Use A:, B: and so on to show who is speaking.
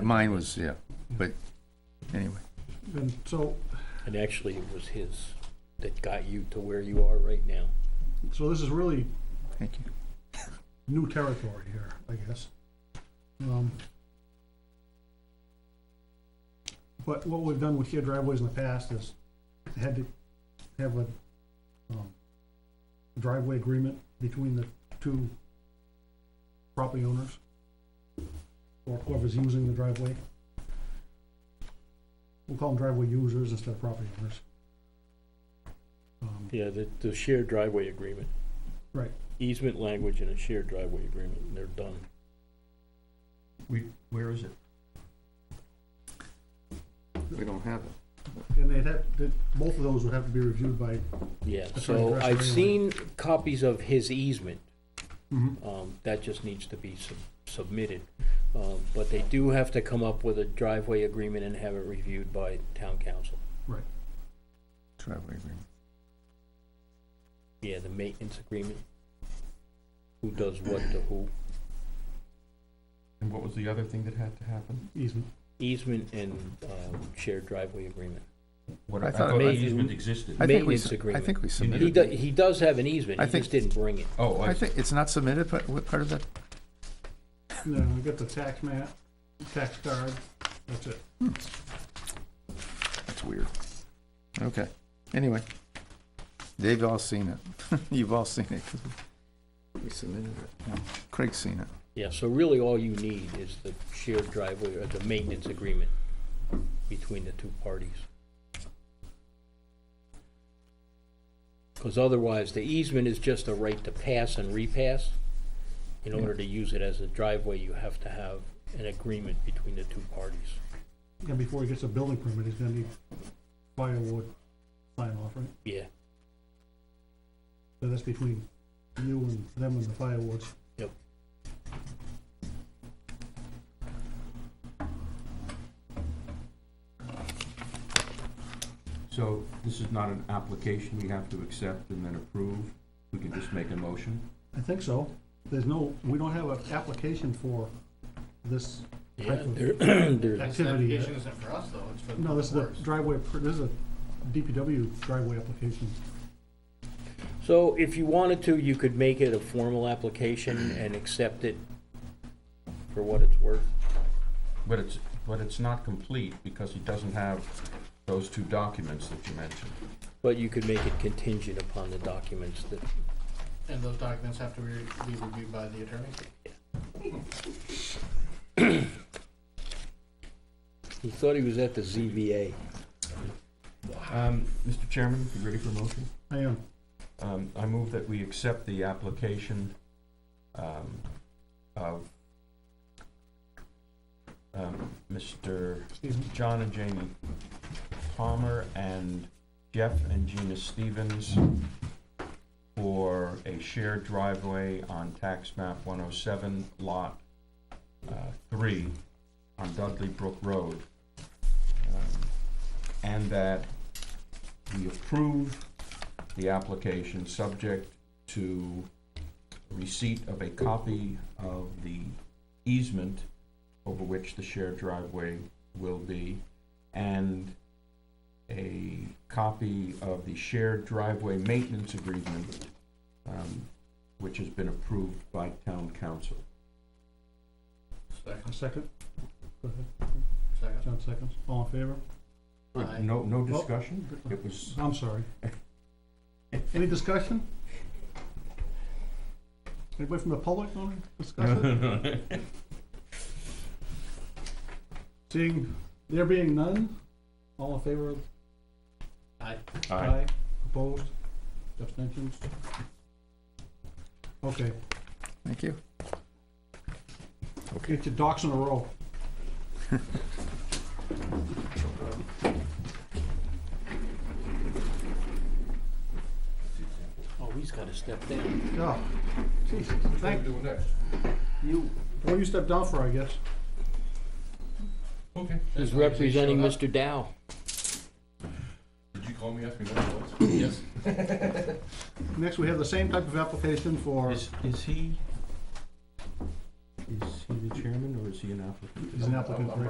A: Mi- Mine was, yeah, but anyway.
B: And so,
C: And actually, it was his that got you to where you are right now.
B: so this is really
A: Thank you.
B: new territory here, I guess. Um, But what we've done with shared driveways in the past is had to have a um, driveway agreement between the two property owners or whoever's using the driveway. We'll call them driveway users instead of property owners. Um,
C: Yeah, the, the shared driveway agreement.
B: Right.
C: Easement language and a shared driveway agreement, and they're done.
D: We, where is it?
A: We don't have it.
B: And they'd have, that- both of those would have to be reviewed by
C: Yeah,
B: That's
C: so
B: right, that's
C: I've
B: right.
C: seen copies of his easement. Um, that just needs to be sub- submitted. Um, but they do have to come up with a driveway agreement and have it reviewed by town council.
A: Driveway agreement.
C: Yeah, the maintenance agreement. Who does what to who.
D: And what was the other thing that had to happen?
B: easement.
C: Easement and, um, shared driveway agreement.
D: What,
A: I
D: I
A: thought
D: thought
C: it-
D: easement existed.
A: I think we
C: Maintenance
A: s-
C: agreement.
A: I think we
C: He
A: submitted.
C: does, he does have an easement,
A: I
C: he
A: think-
C: just didn't bring it.
D: Oh,
A: I
D: I,
A: think it's not submitted, but what part of that?
B: No, we got the tax map, tax card, that's it.
A: That's weird. Okay, anyway. They've all seen it. You've all seen it. 'cause we- We submitted it. Craig's seen it.
C: Yeah, so really all you need is the shared driveway or the maintenance agreement between the two parties. Because otherwise, the easement is just a right to pass and repass. In order to use it as a driveway, you have to have an agreement between the two parties.
B: And before he gets a building permit, he's gonna need firewood sign off, right?
C: Yeah,
B: So that's between you and them and the firewoods.
C: Yep.
D: so this is not an application we have to accept and then approve? We can just make a motion?
B: I think so. There's no, we don't have an application for this
C: yeah,
B: type of
C: there, there's,
E: This
B: activity.
E: application isn't for us, though, it's for the
B: No, this is a
E: boards.
B: driveway, per- this is a DPW driveway application.
C: so if you wanted to, you could make it a formal application and accept it for what it's worth.
D: But it's, but it's not complete because he doesn't have those two documents that you mentioned.
C: But you could make it contingent upon the documents that,
E: And those documents have to be be reviewed by the attorney.
C: he thought he was at the ZVA.
D: Um, Mr. Chairman, you ready for a motion?
B: I am,
D: Um, I move that we accept the application, um, of, um, Mr.
B: Stephen.
D: John and Jamie Palmer and Jeff and Gina Stevens for a shared driveway on tax map one oh seven lot, uh, three on Dudley Brook Road. Um, And that we approve the application subject to receipt of a copy of the easement over which the shared driveway will be, and a copy of the shared driveway maintenance agreement, um, which has been approved by town council.
E: Second,
B: a second. Go ahead,
E: second.
B: John seconds. All in favor?
E: Aye.
D: No, no discussion? It was,
B: I'm sorry. Any discussion? Anybody from the public want to discuss it? Seeing there being none, all in favor of?
E: Aye.
D: Aye.
B: Opposed? Abstentions? Okay,
A: Thank you.
B: get your docs in a row.
C: Oh, he's gotta step down.
B: Yeah. Jesus, thank you. Well, you stepped down for, I guess.
F: Okay.
C: He's representing Mr. Dow.
F: Did you call me asking what it was? Yes.
B: Next, we have the same type of application for,
D: is, is he, is he the
G: chairman, or is he an applicant?
D: He's an applicant, right?